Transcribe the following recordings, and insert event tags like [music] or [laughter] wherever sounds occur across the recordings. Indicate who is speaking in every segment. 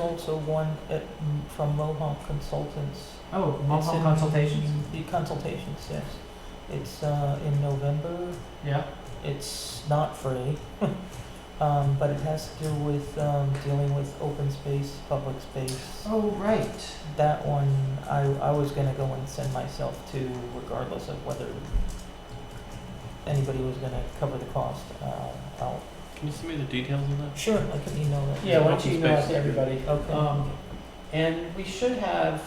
Speaker 1: Also one at, from Mohawk Consultants.
Speaker 2: Oh,
Speaker 1: It's
Speaker 2: Mohawk
Speaker 1: in-
Speaker 2: consultations.
Speaker 1: The consultations, yes. It's, uh, in November,
Speaker 2: Yeah.
Speaker 1: it's not free. [laughs] Um, but it has to do with, um, dealing with open space, public space.
Speaker 2: Oh, right.
Speaker 1: That one, I, I was gonna go and send myself to regardless of whether anybody was gonna cover the cost, uh, out.
Speaker 3: Can you send me the details of that?
Speaker 1: Sure, I can email that.
Speaker 2: Yeah, why
Speaker 3: well-
Speaker 2: don't you email it to everybody?
Speaker 1: Okay.
Speaker 2: Um, And we should have,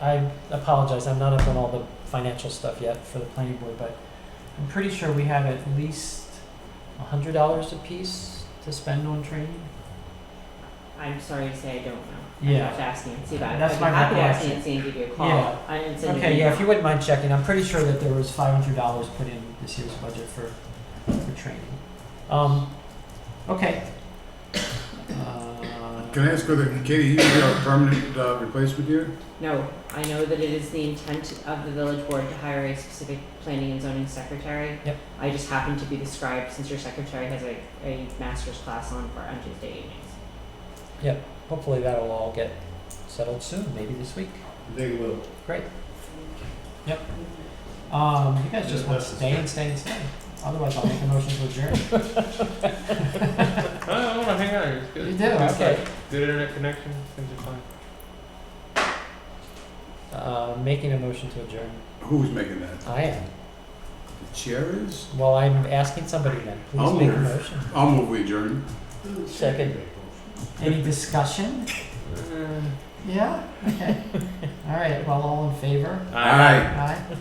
Speaker 2: I apologize, I'm not up on all the financial stuff yet for the planning board, but I'm pretty sure we have at least a hundred dollars apiece to spend on training.
Speaker 4: I'm sorry to say I don't know.
Speaker 2: Yeah.
Speaker 4: I have to ask Nancy about it.
Speaker 2: That's
Speaker 4: I'd
Speaker 2: my
Speaker 4: be happy to ask
Speaker 2: question.
Speaker 4: Nancy and give you a call.
Speaker 2: Yeah.
Speaker 4: I didn't send an
Speaker 2: Okay, yeah, if you
Speaker 4: email.
Speaker 2: wouldn't mind checking, I'm pretty sure that there was five hundred dollars put in this year's budget for, for training. Um, okay. [coughs] Uh,
Speaker 5: Can I ask whether Katie, you would be our permanent uh, replacement here?
Speaker 4: No, I know that it is the intent of the village board to hire a specific planning and zoning secretary.
Speaker 2: Yep.
Speaker 4: I just happen to be the scribe since your secretary has a, a master's class on for on Tuesday evenings.
Speaker 2: Hopefully that'll all get settled soon, maybe this week.
Speaker 5: They will.
Speaker 2: Great. Yep. Um, you guys just
Speaker 5: Yeah,
Speaker 2: want
Speaker 5: that's
Speaker 2: to
Speaker 5: the
Speaker 2: stay and stay and stay. Otherwise, I'll make a motion to adjourn.
Speaker 3: I, I want to hang out here. It's good.
Speaker 2: You do,
Speaker 3: It's
Speaker 2: okay.
Speaker 3: like Good internet connection. Things are fine.
Speaker 2: Uh, making a motion to adjourn.
Speaker 5: Who's making that?
Speaker 2: I am.
Speaker 5: The chair is?
Speaker 2: Well, I'm asking somebody then. Please
Speaker 5: I'll
Speaker 2: make a
Speaker 5: move.
Speaker 2: motion.
Speaker 5: I'll move we adjourn.
Speaker 1: Second.
Speaker 2: Any discussion?
Speaker 3: Uh,
Speaker 2: [laughs] Yeah. Okay. all right. Well, all in favor?
Speaker 5: Aye.
Speaker 2: Aye.